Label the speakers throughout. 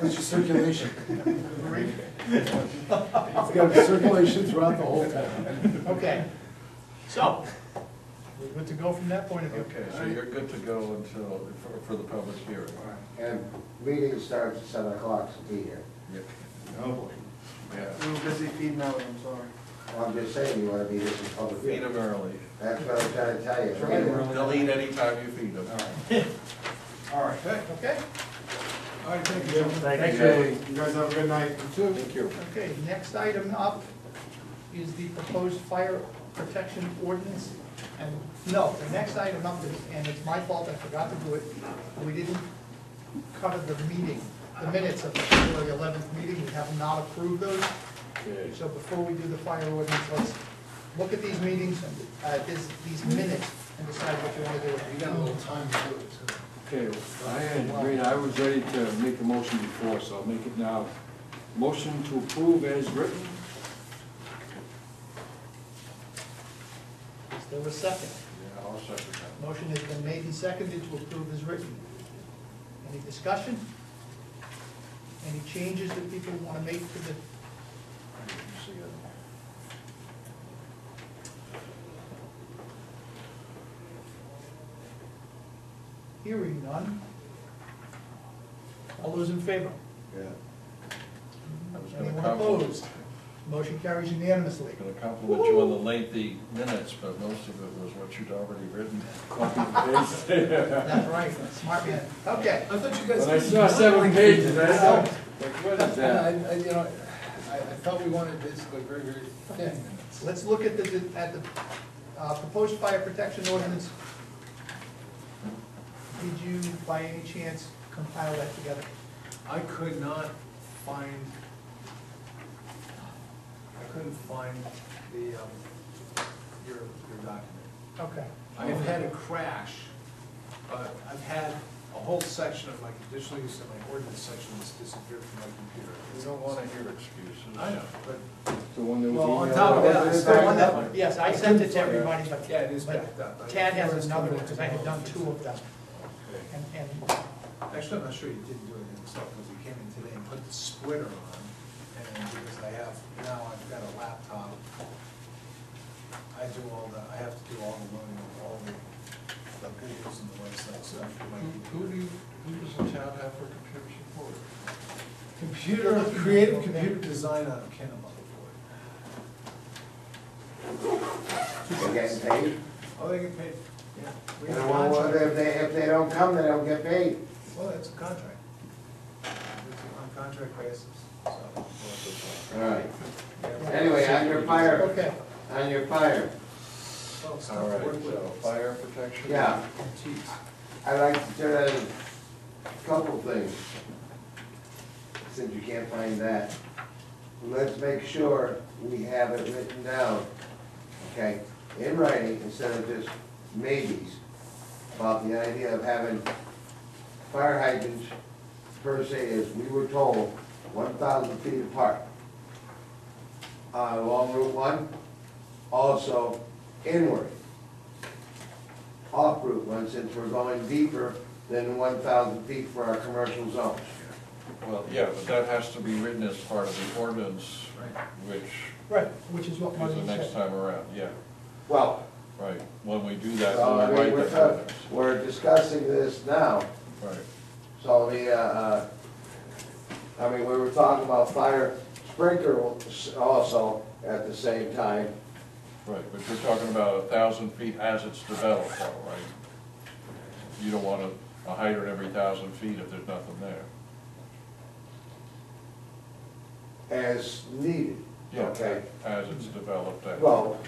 Speaker 1: That's your circulation. It's got circulation throughout the whole town.
Speaker 2: Okay, so, we're good to go from that point of view.
Speaker 3: Okay, so you're good to go until, for, for the public hearing.
Speaker 4: And meeting starts at seven o'clock, so be here.
Speaker 3: Yep.
Speaker 2: Oh, boy.
Speaker 3: Yeah,
Speaker 5: We were busy feeding out, I'm sorry.
Speaker 4: I'm just saying, you wanna be here for public
Speaker 3: feed
Speaker 4: hearing.
Speaker 3: them early.
Speaker 4: That's what I'm trying to tell you.
Speaker 5: Try to run.
Speaker 3: They'll eat anytime you feed them.
Speaker 5: All right.
Speaker 2: Okay,
Speaker 1: All right, thank you.
Speaker 5: Thank
Speaker 1: you. You guys have a good night.
Speaker 3: Thank you.
Speaker 2: okay, next item up is the proposed fire protection ordinance. And, no, the next item up is, and it's my fault, I forgot to do it, we didn't cover the meeting, the minutes of the February eleventh meeting, we have not approved those. So before we do the fire ordinance, let's look at these meetings, and, uh, this, these minutes, and decide what you wanna do.
Speaker 5: You got a little time to do it, too.
Speaker 6: Okay, I agreed, I was ready to make a motion before, so I'll make it now. Motion to approve as written,
Speaker 2: Is there a second?
Speaker 3: Yeah, I'll second that.
Speaker 2: Motion has been made and seconded to approve as written. Any discussion? Any changes that people want to make to the,
Speaker 3: I didn't see it.
Speaker 2: hearing none? All those in favor?
Speaker 3: Yeah. I was gonna
Speaker 2: Anyone
Speaker 3: compliment-
Speaker 2: opposed? Motion carries unanimously.
Speaker 3: Gonna compliment you on the lengthy minutes, but most of it was what you'd already written.
Speaker 6: copy and paste.
Speaker 2: That's right, smart man. Okay.
Speaker 5: I thought you
Speaker 6: When
Speaker 5: guys.
Speaker 6: I saw seven pages, I
Speaker 5: I,
Speaker 6: thought, like, what is
Speaker 5: I,
Speaker 6: that?
Speaker 5: I- you know, I, I thought we wanted basically very, very thin minutes.
Speaker 2: Let's look at the, at the uh, proposed fire protection ordinance. Did you, by any chance, compile that together?
Speaker 5: I could not find, I couldn't find the, um, your, your document.
Speaker 2: Okay.
Speaker 5: I've had a crash, but I've had a whole section of my conditional use and my ordinance section that's disappeared from my computer.
Speaker 3: We don't wanna hear excuses.
Speaker 5: I know, but,
Speaker 6: The one that was
Speaker 5: well, on
Speaker 6: emailed
Speaker 5: top of that,
Speaker 6: out.
Speaker 5: I
Speaker 1: it's
Speaker 5: still
Speaker 1: backed
Speaker 5: want that
Speaker 1: up.
Speaker 5: one.
Speaker 2: Yes, I sent it to everybody, but.
Speaker 5: Yeah, it is
Speaker 2: but
Speaker 5: backed up. I-
Speaker 2: Tad has another one, because I had done two of them,
Speaker 5: Okay.
Speaker 2: and, and,
Speaker 5: Actually, I'm not sure you didn't do it yourself, because you came in today and put the splitter on, and because I have, now I've got a laptop. I do all the, I have to do all the loading of all the, the videos and the website stuff for my
Speaker 3: Who, who
Speaker 5: computer.
Speaker 3: do you, who does the town have for computer support?
Speaker 5: Computer, creative computer design out of Kennebunk.
Speaker 4: They're getting paid.
Speaker 5: Oh, they get paid, yeah. We
Speaker 4: And
Speaker 5: have a
Speaker 4: I wonder
Speaker 5: contract.
Speaker 4: if they, if they don't come, they don't get paid.
Speaker 5: Well, that's a contract. It's on contract basis, so.
Speaker 4: All right.
Speaker 5: yeah.
Speaker 4: Anyway, on your fire,
Speaker 2: okay.
Speaker 4: on your fire,
Speaker 5: Oh, it's
Speaker 3: All
Speaker 5: not
Speaker 3: right,
Speaker 5: worth it.
Speaker 3: so fire protection?
Speaker 4: Yeah.
Speaker 3: Geez.
Speaker 4: I'd like to turn on a couple things. Since you can't find that. Let's make sure we have it written down, okay, in writing instead of just maybes about the idea of having fire hydrants per se as we were told, one thousand feet apart. Uh, along Route one, also inward off Route One since we're going deeper than one thousand feet for our commercial zones.
Speaker 3: Well, yeah, but that has to be written as part of the ordinance,
Speaker 5: Right.
Speaker 3: which
Speaker 2: Right, which is what
Speaker 3: is the
Speaker 2: Marlene
Speaker 3: next
Speaker 2: said.
Speaker 3: time around, yeah,
Speaker 4: Well,
Speaker 3: right. When we do that,
Speaker 4: so, I
Speaker 3: we'll
Speaker 4: mean,
Speaker 3: write
Speaker 4: Oh, we're,
Speaker 3: that
Speaker 4: talk-
Speaker 3: ordinance.
Speaker 4: we're discussing this now,
Speaker 3: Right,
Speaker 4: so the, uh, uh, I mean, we were talking about fire sprinklers also at the same time.
Speaker 3: right, but you're talking about a thousand feet as it's developed, though, right? You don't want a, a hydrant every thousand feet if there's nothing there.
Speaker 4: as needed.
Speaker 3: Yeah,
Speaker 4: Okay.
Speaker 3: As it's developed, that, right,
Speaker 4: Well,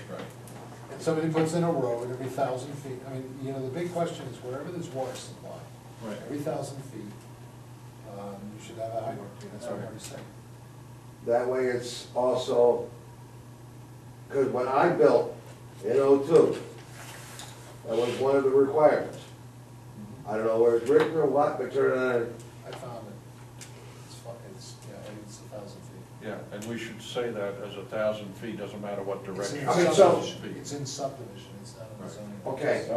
Speaker 5: And somebody puts in a road every thousand feet, I mean, you know, the big question is wherever there's water supply,
Speaker 3: Right.
Speaker 5: every thousand feet, um, you should have a hydrant, that's what I already said.
Speaker 4: that way it's also, because when I built in oh-two, that was one of the requirements. I don't know where it's written or what, but turn on,
Speaker 5: I found it, it's fun, it's, yeah, it's a thousand feet.
Speaker 3: yeah, and we should say that as a thousand feet, doesn't matter what
Speaker 5: It's in
Speaker 3: direction.
Speaker 4: I mean,
Speaker 3: it's
Speaker 4: so-
Speaker 5: subdivision. It's in subdivision, it's not in the
Speaker 3: Right.
Speaker 5: zoning.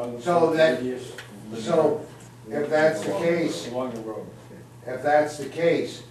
Speaker 4: okay,
Speaker 6: Sounds
Speaker 4: so that,
Speaker 6: tedious.
Speaker 4: so if that's the
Speaker 6: Along-
Speaker 4: case,
Speaker 6: Along the road.
Speaker 4: if that's the case,